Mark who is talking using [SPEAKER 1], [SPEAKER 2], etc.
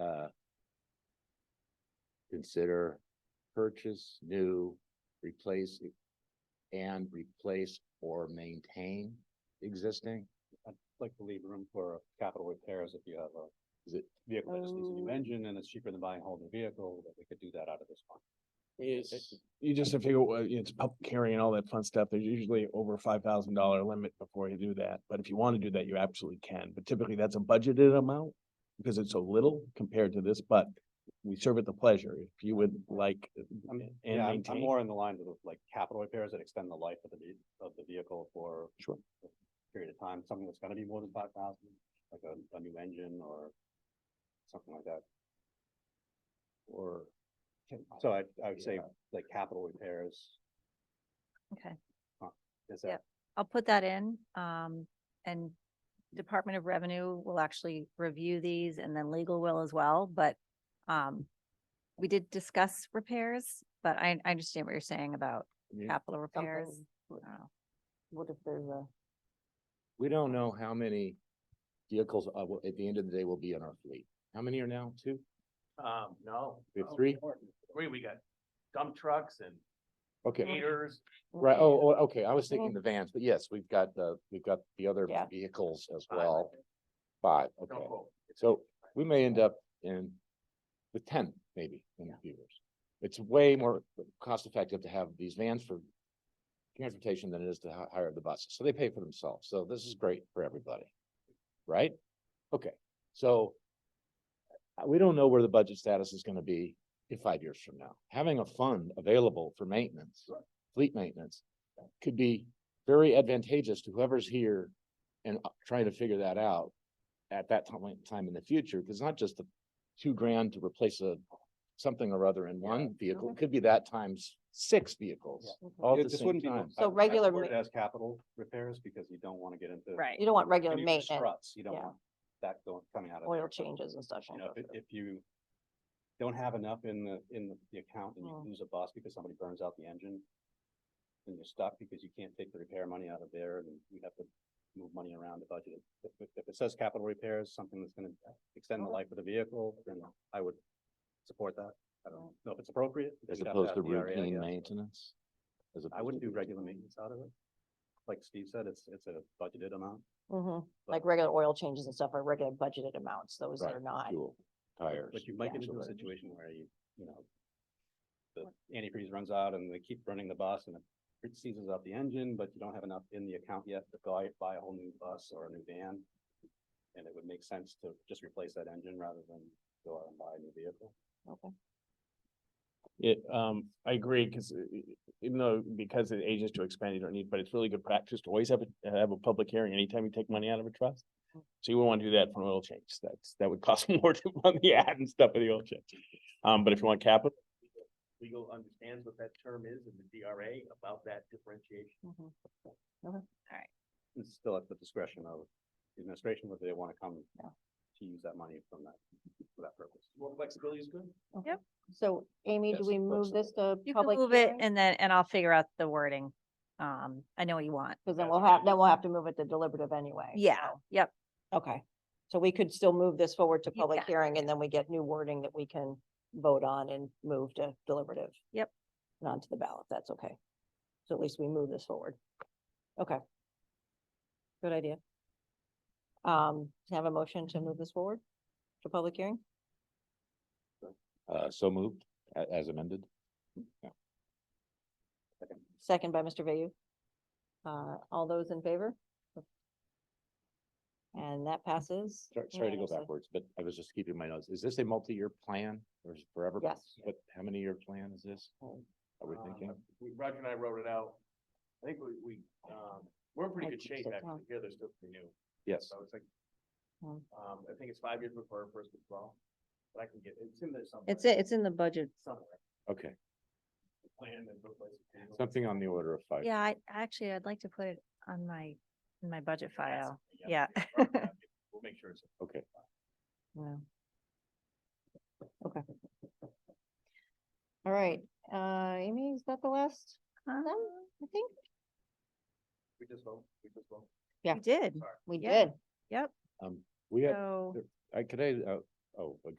[SPEAKER 1] uh, consider purchase, new, replace, and replace or maintain existing?
[SPEAKER 2] like to leave room for capital repairs if you have a.
[SPEAKER 1] Is it-
[SPEAKER 2] Vehicle that just needs a new
[SPEAKER 3] Oh.
[SPEAKER 2] engine and it's cheaper than buying a whole new vehicle, that we could do that out of this fund.
[SPEAKER 4] It's, you just have to figure, well, it's public hearing and all that fun stuff. There's usually over five thousand dollar limit before you do that. But if you want to do that, you absolutely can. But typically that's a budgeted amount because it's so little compared to this, but we serve at the pleasure. If you would like uh, and
[SPEAKER 2] I'm- Yeah, I'm, I'm
[SPEAKER 4] maintain.
[SPEAKER 2] more in the lines of like capital repairs that extend the life of the, ve- of the vehicle for.
[SPEAKER 4] Sure.
[SPEAKER 2] a Period of time, something that's gonna be more than five thousand, like a, a new engine or something like that. Or, so I, I would say like capital repairs,
[SPEAKER 3] Okay,
[SPEAKER 2] is
[SPEAKER 3] Yep.
[SPEAKER 2] that,
[SPEAKER 3] I'll put that in, um, and Department of Revenue will actually review these and then legal will as well, but, um, we did discuss repairs, but I, I understand what you're saying about
[SPEAKER 1] Yeah.
[SPEAKER 3] capital repairs.
[SPEAKER 5] Something
[SPEAKER 3] I don't know.
[SPEAKER 5] What if there's a,
[SPEAKER 1] We don't know how many vehicles, uh, will- at the end of the day will be in our fleet. How many are now? Two?
[SPEAKER 6] Um, no.
[SPEAKER 1] We have
[SPEAKER 6] no,
[SPEAKER 1] three?
[SPEAKER 6] more. Three, we got dump trucks and
[SPEAKER 1] Okay,
[SPEAKER 6] haters.
[SPEAKER 1] right, oh, oh, okay, I was thinking the vans, but yes, we've got the, we've got the other
[SPEAKER 5] Yeah.
[SPEAKER 1] vehicles as well. Five, okay.
[SPEAKER 6] Don't quote.
[SPEAKER 1] So we may end up in with ten maybe in a few years. It's way more cost effective to have these vans for transportation than it is to hi- hire the buses. So they pay for themselves. So this is great for everybody. Right? Okay, so uh, we don't know where the budget status is gonna be in five years from now. Having a fund available for maintenance, fleet maintenance, could be very advantageous to whoever's here and uh, trying to figure that out at that time, time in the future, because not just the two grand to replace a something or other in one vehicle, it could be that times six vehicles.
[SPEAKER 5] Mm-hmm.
[SPEAKER 1] all at
[SPEAKER 2] Yeah,
[SPEAKER 1] the
[SPEAKER 2] this
[SPEAKER 1] same
[SPEAKER 2] wouldn't be.
[SPEAKER 1] time.
[SPEAKER 5] So regular
[SPEAKER 2] Word
[SPEAKER 5] ma-
[SPEAKER 2] as capital repairs because you don't wanna get into.
[SPEAKER 3] Right.
[SPEAKER 5] you don't want regular
[SPEAKER 2] when you do
[SPEAKER 5] maintenance,
[SPEAKER 2] struts, You don't
[SPEAKER 5] yeah.
[SPEAKER 2] want that going, coming out of.
[SPEAKER 5] oil
[SPEAKER 2] there, so,
[SPEAKER 5] changes and such.
[SPEAKER 2] You
[SPEAKER 5] don't
[SPEAKER 2] know,
[SPEAKER 5] go
[SPEAKER 2] if, it-
[SPEAKER 5] through.
[SPEAKER 2] if you don't have enough in the, in the- the account and you
[SPEAKER 5] Mm.
[SPEAKER 2] lose a bus because somebody burns out the engine. Then you're stuck because you can't take the repair money out of there and you have to move money around the budget. If, if- if it says capital repairs, something that's gonna extend the
[SPEAKER 5] Okay.
[SPEAKER 2] life of the vehicle, then I would support that. I don't know if it's appropriate.
[SPEAKER 1] As
[SPEAKER 2] You'd have
[SPEAKER 1] opposed to
[SPEAKER 2] have the RA, I
[SPEAKER 1] routine
[SPEAKER 2] guess.
[SPEAKER 1] maintenance? as
[SPEAKER 2] I
[SPEAKER 1] opposed
[SPEAKER 2] wouldn't
[SPEAKER 1] to-
[SPEAKER 2] do regular maintenance out of it. Like Steve said, it's, it's a budgeted amount.
[SPEAKER 5] Mhm.
[SPEAKER 2] but-
[SPEAKER 5] Like regular oil changes and stuff are regular budgeted amounts, those
[SPEAKER 1] Right,
[SPEAKER 5] are not.
[SPEAKER 1] Fuel, tires.
[SPEAKER 2] But you might get into a
[SPEAKER 1] actually.
[SPEAKER 2] situation where you, you know, the antifreeze runs out and they keep running the bus and it seizes up the engine, but you don't have enough in the account yet to buy, buy a whole new bus or a new van. And it would make sense to just replace that engine rather than go out and buy a new vehicle.
[SPEAKER 5] Okay.
[SPEAKER 4] It, um, I agree, because even though, because it ages to expand, you don't need, but it's really good practice to always have a, have a public hearing anytime you take money out of a trust. So you wouldn't want to do that for an oil change. That's, that would cost more to run the ad and stuff for the oil change. Um, but if you want capital,
[SPEAKER 6] Legal understands what that term is in the DRA about that differentiation.
[SPEAKER 5] Mhm.
[SPEAKER 2] It's still at the discretion of the administration, whether they want to come
[SPEAKER 5] Yeah.
[SPEAKER 2] to use that money from that, for that purpose.
[SPEAKER 6] More flexibility is good.
[SPEAKER 5] So Amy, do
[SPEAKER 1] Yes,
[SPEAKER 5] we move this to
[SPEAKER 3] You can
[SPEAKER 5] public
[SPEAKER 3] move it
[SPEAKER 5] hearing?
[SPEAKER 3] and then, and I'll figure out the wording. Um, I know what you want.
[SPEAKER 5] Cause then we'll have, then we'll have to move it to deliberative anyway.
[SPEAKER 3] Yeah,
[SPEAKER 5] so-
[SPEAKER 3] yep,
[SPEAKER 5] Okay, so we could still move this forward to
[SPEAKER 3] You
[SPEAKER 5] public
[SPEAKER 3] can,
[SPEAKER 5] hearing and then we get new wording that we can vote on and move to deliberative.
[SPEAKER 3] Yep.
[SPEAKER 5] And onto the ballot, that's okay. So at least we move this forward. Okay. Good idea. Um, can I have a motion to move this forward to public hearing?
[SPEAKER 1] Uh, so moved, a- as amended?
[SPEAKER 5] Second by Mr. Vayu. Uh, all those in favor? And that passes.
[SPEAKER 1] Sorry, sorry to go
[SPEAKER 5] unanimously.
[SPEAKER 1] backwards, but I was just keeping my notes. Is this a multi-year plan or is it forever?
[SPEAKER 5] Yes.
[SPEAKER 1] What, how many year plan is this?
[SPEAKER 2] Oh,
[SPEAKER 1] Are we
[SPEAKER 2] uh,
[SPEAKER 6] Um,
[SPEAKER 1] thinking?
[SPEAKER 6] We, Roger and I wrote it out. I think we, we, um, we're in pretty good shape actually. Here, they're still pretty new.
[SPEAKER 1] Yes,
[SPEAKER 6] So it's like,
[SPEAKER 5] Hmm.
[SPEAKER 6] um, I think it's five years before our first withdrawal. But I can get, it's in there somewhere.
[SPEAKER 3] it's, it- it's in the budget.
[SPEAKER 6] Somewhere.
[SPEAKER 1] okay,
[SPEAKER 6] Plan and replace it.
[SPEAKER 1] something on the order of five.
[SPEAKER 3] Yeah, I, actually, I'd like to put it on my, in my budget file. Yeah.
[SPEAKER 6] We'll make sure it's.
[SPEAKER 1] Okay,
[SPEAKER 5] Wow. Okay. All right, uh, Amy, is that the last
[SPEAKER 3] Uh,
[SPEAKER 5] of them? I think
[SPEAKER 6] We just vote, we just vote.
[SPEAKER 5] Yeah.
[SPEAKER 3] We did,
[SPEAKER 5] we
[SPEAKER 3] Yeah.
[SPEAKER 5] did.
[SPEAKER 3] yep,
[SPEAKER 1] um, we have,
[SPEAKER 3] so.
[SPEAKER 1] I, could I, uh, oh,